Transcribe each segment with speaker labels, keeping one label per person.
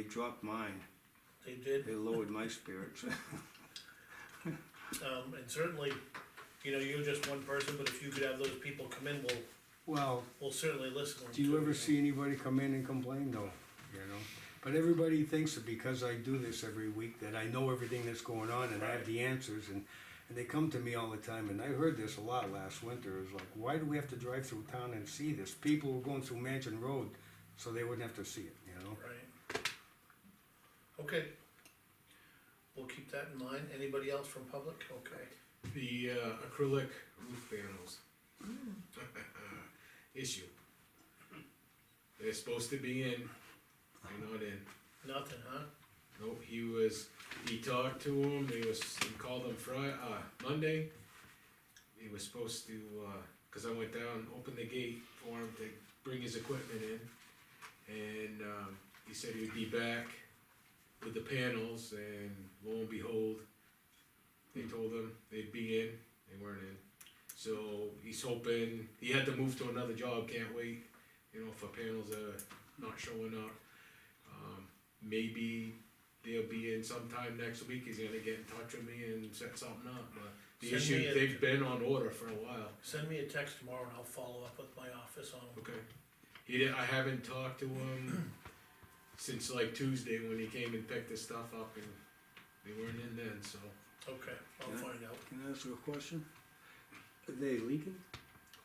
Speaker 1: dropped mine,
Speaker 2: They did,
Speaker 1: they lowered my spirits.
Speaker 2: um, and certainly, you know, you're just one person, but if you could have those people come in, we'll,
Speaker 3: Well,
Speaker 2: we'll certainly listen.
Speaker 3: do you
Speaker 2: to
Speaker 3: ever
Speaker 2: them.
Speaker 3: see anybody come in and complain though, you know? But everybody thinks that because I do this every week, that I know everything that's going on and I have the answers and, and they come to me all the time and I heard this a lot last winter, It's like, why do we have to drive through town and see this? People were going through Mansion Road, so they wouldn't have to see it, you know?
Speaker 2: Right. Okay. We'll keep that in mind, anybody else from public, okay,
Speaker 4: The uh, acrylic roof panels. Issue. They're supposed to be in, they're not in.
Speaker 2: nothing, huh?
Speaker 4: Nope, he was, he talked to him, he was, he called him Fri- uh, Monday. He was supposed to, uh 'cause cause I went down, opened the gate for him to bring his equipment in. And, um, he said he would be back with the panels and lo and behold, they told him they'd be in, they weren't in. So he's hoping, he had to move to another job, can't wait, you know, for panels that are not showing up. Um, maybe they'll be in sometime next week, he's gonna get in touch with me and set something up, but the
Speaker 2: Send me
Speaker 4: issue,
Speaker 2: a-
Speaker 4: they've been on order for a while.
Speaker 2: Send me a text tomorrow and I'll follow up with my office on them.
Speaker 4: Okay. He did, I haven't talked to him since like Tuesday when he came and picked the stuff up and they weren't in then, so.
Speaker 2: okay, I'll
Speaker 1: Yeah.
Speaker 2: find out.
Speaker 1: Can I ask you a question? Are they leaking?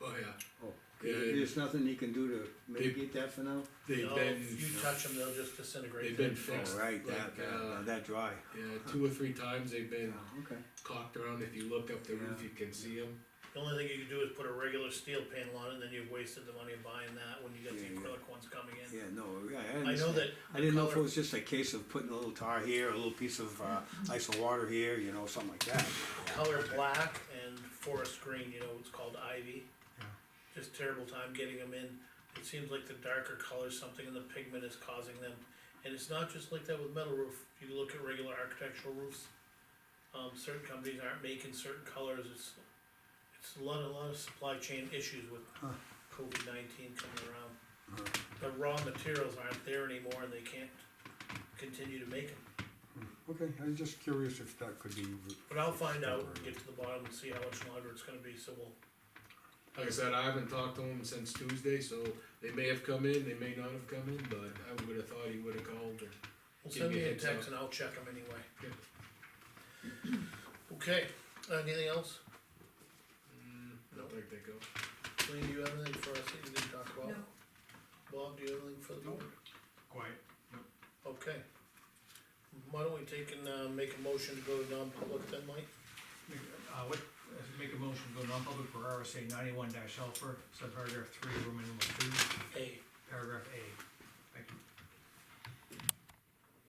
Speaker 4: Oh, yeah.
Speaker 1: Oh,
Speaker 4: Yeah.
Speaker 1: there's nothing you can do to mitigate that for now?
Speaker 4: They've
Speaker 2: No,
Speaker 4: been,
Speaker 2: If you touch them, they'll just disintegrate.
Speaker 4: they've been
Speaker 2: them.
Speaker 4: fixed.
Speaker 1: Oh, right, that,
Speaker 4: like,
Speaker 1: that,
Speaker 4: uh,
Speaker 1: that dry. Oh,
Speaker 4: yeah, two or three times they've been
Speaker 1: Okay.
Speaker 4: cocked around. If you look up the roof,
Speaker 1: Yeah.
Speaker 4: you can see them.
Speaker 2: The only thing you can do is put a regular steel panel on it, and then you've wasted the money of buying that when you got the
Speaker 1: Yeah, yeah.
Speaker 2: acrylic ones coming in.
Speaker 1: Yeah, no, I- I
Speaker 2: I know
Speaker 1: understand.
Speaker 2: that.
Speaker 1: I
Speaker 2: the
Speaker 1: didn't know if it
Speaker 2: color-
Speaker 1: was just a case of putting a little tar here, a little piece of, uh, ice and water here, you know, something like that.
Speaker 2: color black and forest green, you know, it's called ivy.
Speaker 3: Yeah.
Speaker 2: Just terrible time getting them in, it seems like the darker colors, something in the pigment is causing them, and it's not just like that with metal roof, you look at regular architectural roofs. Um, certain companies aren't making certain colors, it's, it's a lot, a lot of supply chain issues with
Speaker 3: Huh.
Speaker 2: COVID nineteen coming around. The raw materials aren't there anymore and they can't continue to make them,
Speaker 3: Okay, I was just curious if that could be.
Speaker 2: but I'll find out, and get to the bottom and see how much longer it's gonna be, so we'll
Speaker 4: Like I said, I haven't talked to him since Tuesday, so they may have come in, they may not have come in, but I would have thought he would have called. And
Speaker 2: Well,
Speaker 4: Give
Speaker 2: send
Speaker 4: me
Speaker 2: me
Speaker 4: a
Speaker 2: a
Speaker 4: heads
Speaker 2: text
Speaker 4: up.
Speaker 2: and I'll check them anyway.
Speaker 4: Good.
Speaker 2: Okay, anything else?
Speaker 4: mm, I
Speaker 2: No.
Speaker 4: don't think they go.
Speaker 2: Lean, do you have anything for us that you didn't talk about?
Speaker 5: No.
Speaker 2: Bob, do you have anything for the board?
Speaker 6: Quiet.
Speaker 2: Okay. Why don't we take and, uh, make a motion to go to non-public then, Mike?
Speaker 6: Make- Uh, what, uh, make a motion, to go non-public for RSA ninety-one dash alpha, subparagraph three, Roman numeral two,